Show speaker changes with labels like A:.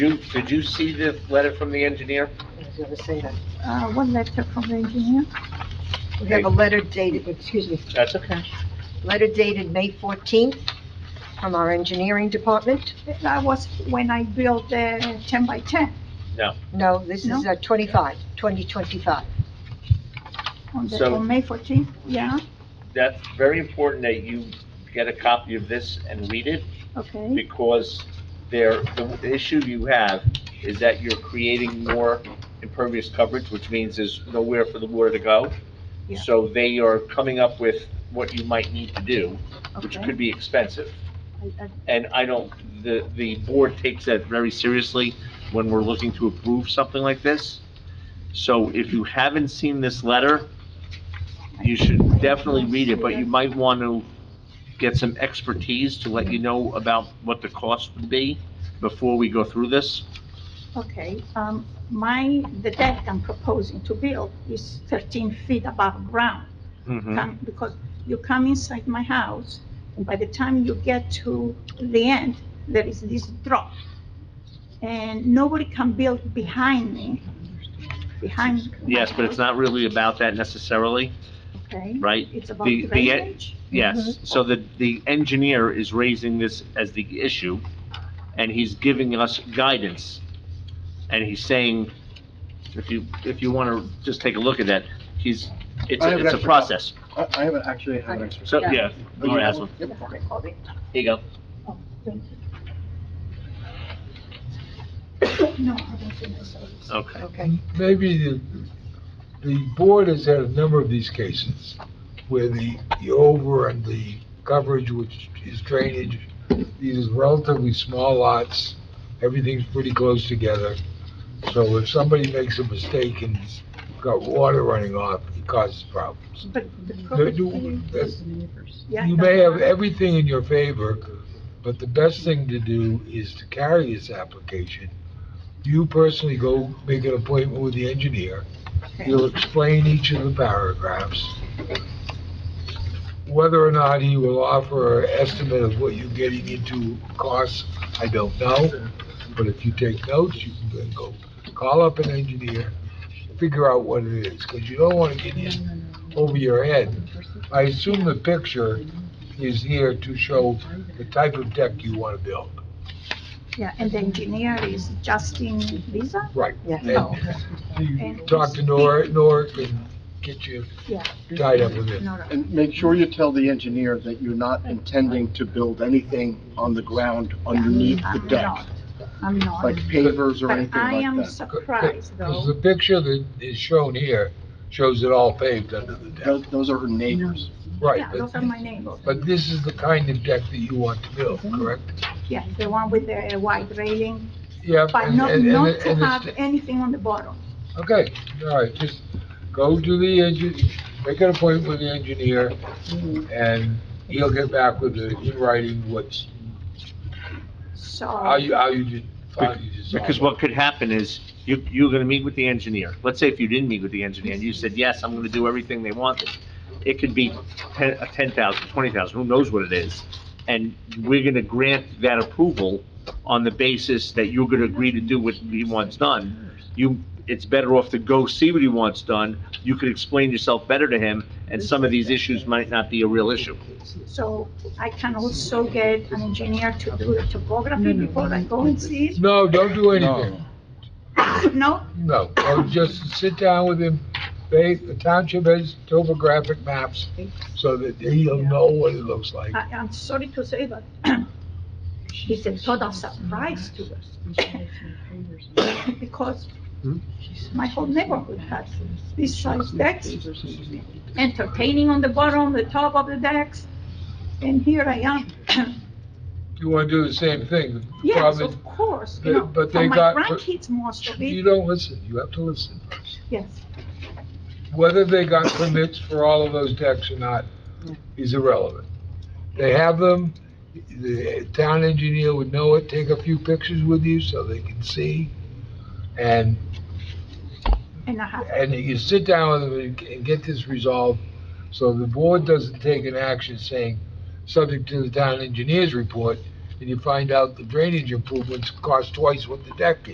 A: You, did you see the letter from the engineer?
B: I was gonna say that.
C: Uh, one letter from the engineer.
B: We have a letter dated, excuse me,
A: That's okay.
B: letter dated May fourteenth from our engineering department.
C: That was when I built the ten by ten
B: No, this is
C: No?
B: uh, 25, 2025.
C: on the,
A: So-
C: on May fourteenth, yeah,
A: That's very important that you get a copy of this and read it,
C: okay.
A: because there, the issue you have is that you're creating more impervious coverage, which means there's nowhere for the water to go.
C: Yeah.
A: So they are coming up with what you might need to do, which
C: Okay.
A: could be expensive.
C: I- I-
A: And I don't, the, the board takes that very seriously when we're looking to approve something like this. So if you haven't seen this letter, you should definitely read it, but you might want to get some expertise to let you know about what the cost would be before we go through this.
C: Okay, um, my, the deck I'm proposing to build is thirteen feet above ground.
A: Mm-hmm.
C: Come- Because you come inside my house, and by the time you get to the end, there is this drop. And nobody can build behind me, behind. my
A: Yes, but it's
C: house,
A: not really about that necessarily,
C: Okay,
A: right?
C: it's about
A: the- the e-
C: drainage.
A: Yes, so the, the engineer is raising this as the issue, and he's giving us guidance. And he's saying, if you, if you want to just take a look at that, he's, it's,
D: I have
A: a-
D: an
A: it's a
D: extra-
A: process.
D: I, I haven't actually had an extra.
A: So, yeah, Laura has one.
D: Yep.
A: Here you go.
C: No, I don't think so.
A: Okay.
B: Okay.
E: maybe the, the board has had a number of these cases where the, the over and the coverage, which is drainage, these are relatively small lots, everything's pretty close together. So if somebody makes a mistake and has got water running off, it causes problems.
C: But the
E: The-
C: problem,
E: the-
C: yeah.
E: You may have everything in your favor, but the best thing to do is to carry this application. You personally go make an appointment with the engineer, He'll explain each of the paragraphs. Whether or not he will offer an estimate of what you're getting into costs, I don't know. But if you take notes, you can then go call up an engineer, figure out what it is, because you don't want to get in over your head. I assume the picture is here to show the type of deck you want to build.
C: Yeah, and the engineer is Justin Visa?
E: Right.
B: Yeah.
E: And you talk to Nor Norick and get you
C: Yeah.
E: tied up with it.
C: No, no.
D: And make sure you tell the engineer that you're not intending to build anything on the ground underneath the
C: I'm
D: deck,
C: not. I'm not.
D: like pavers or
C: But
D: anything
C: I am
D: like that.
C: surprised
E: Because
C: though,
E: the picture that is shown here shows it all paved under the deck.
D: Those, those are her neighbors.
E: Right,
C: yeah, those are
E: but,
C: my neighbors, Mm-hmm.
E: but this is the kind of deck that you want to build, correct?
C: yeah, the one with the white railing,
E: Yep.
C: but
E: and-
C: not,
E: and- and
C: not
E: it-
C: to
E: and it's-
C: have anything on the bottom.
E: Okay, all right, just go to the engi, make an appointment with the engineer,
C: Mm-hmm.
E: and he'll get back with the, in writing what's, how
C: So,
E: you, how you did, how you design.
A: Because what could happen is, you, you're gonna meet with the engineer. Let's say if you didn't meet with the engineer, and you said, yes, I'm gonna do everything they wanted. It could be ten, uh, ten thousand, twenty thousand, who knows what it is? And we're gonna grant that approval on the basis that you're gonna agree to do what he wants done. You, it's better off to go see what he wants done. You could explain yourself better to him, and some of these issues might not be a real issue.
C: so I can also get an engineer to do the topography before I go and see
E: No, don't do anything.
C: it? No,
E: No, or just sit down with him, they, the township has topographic maps, so that he'll know what it looks like.
C: I, I'm sorry to say, but it's a total surprise to us. Because
E: Hmm?
C: my whole neighborhood has these size decks, entertaining on the bottom, the top of the decks, and here I am.
E: You wanna do the same thing? The
C: Yes,
E: problem-
C: of course,
E: But-
C: you know,
E: but
C: for
E: they
C: my
E: got-
C: grandkids most of
E: You
C: it,
E: don't listen, you have to listen.
C: yes.
E: Whether they got permits for all of those decks or not is irrelevant. They have them, the town engineer would know it, take a few pictures with you so they can see. And,
C: And I have,
E: and you sit down with them and- and get this resolved, so the board doesn't take an action saying, subject to the town engineer's report, and you find out the drainage improvements cost twice what the deck is.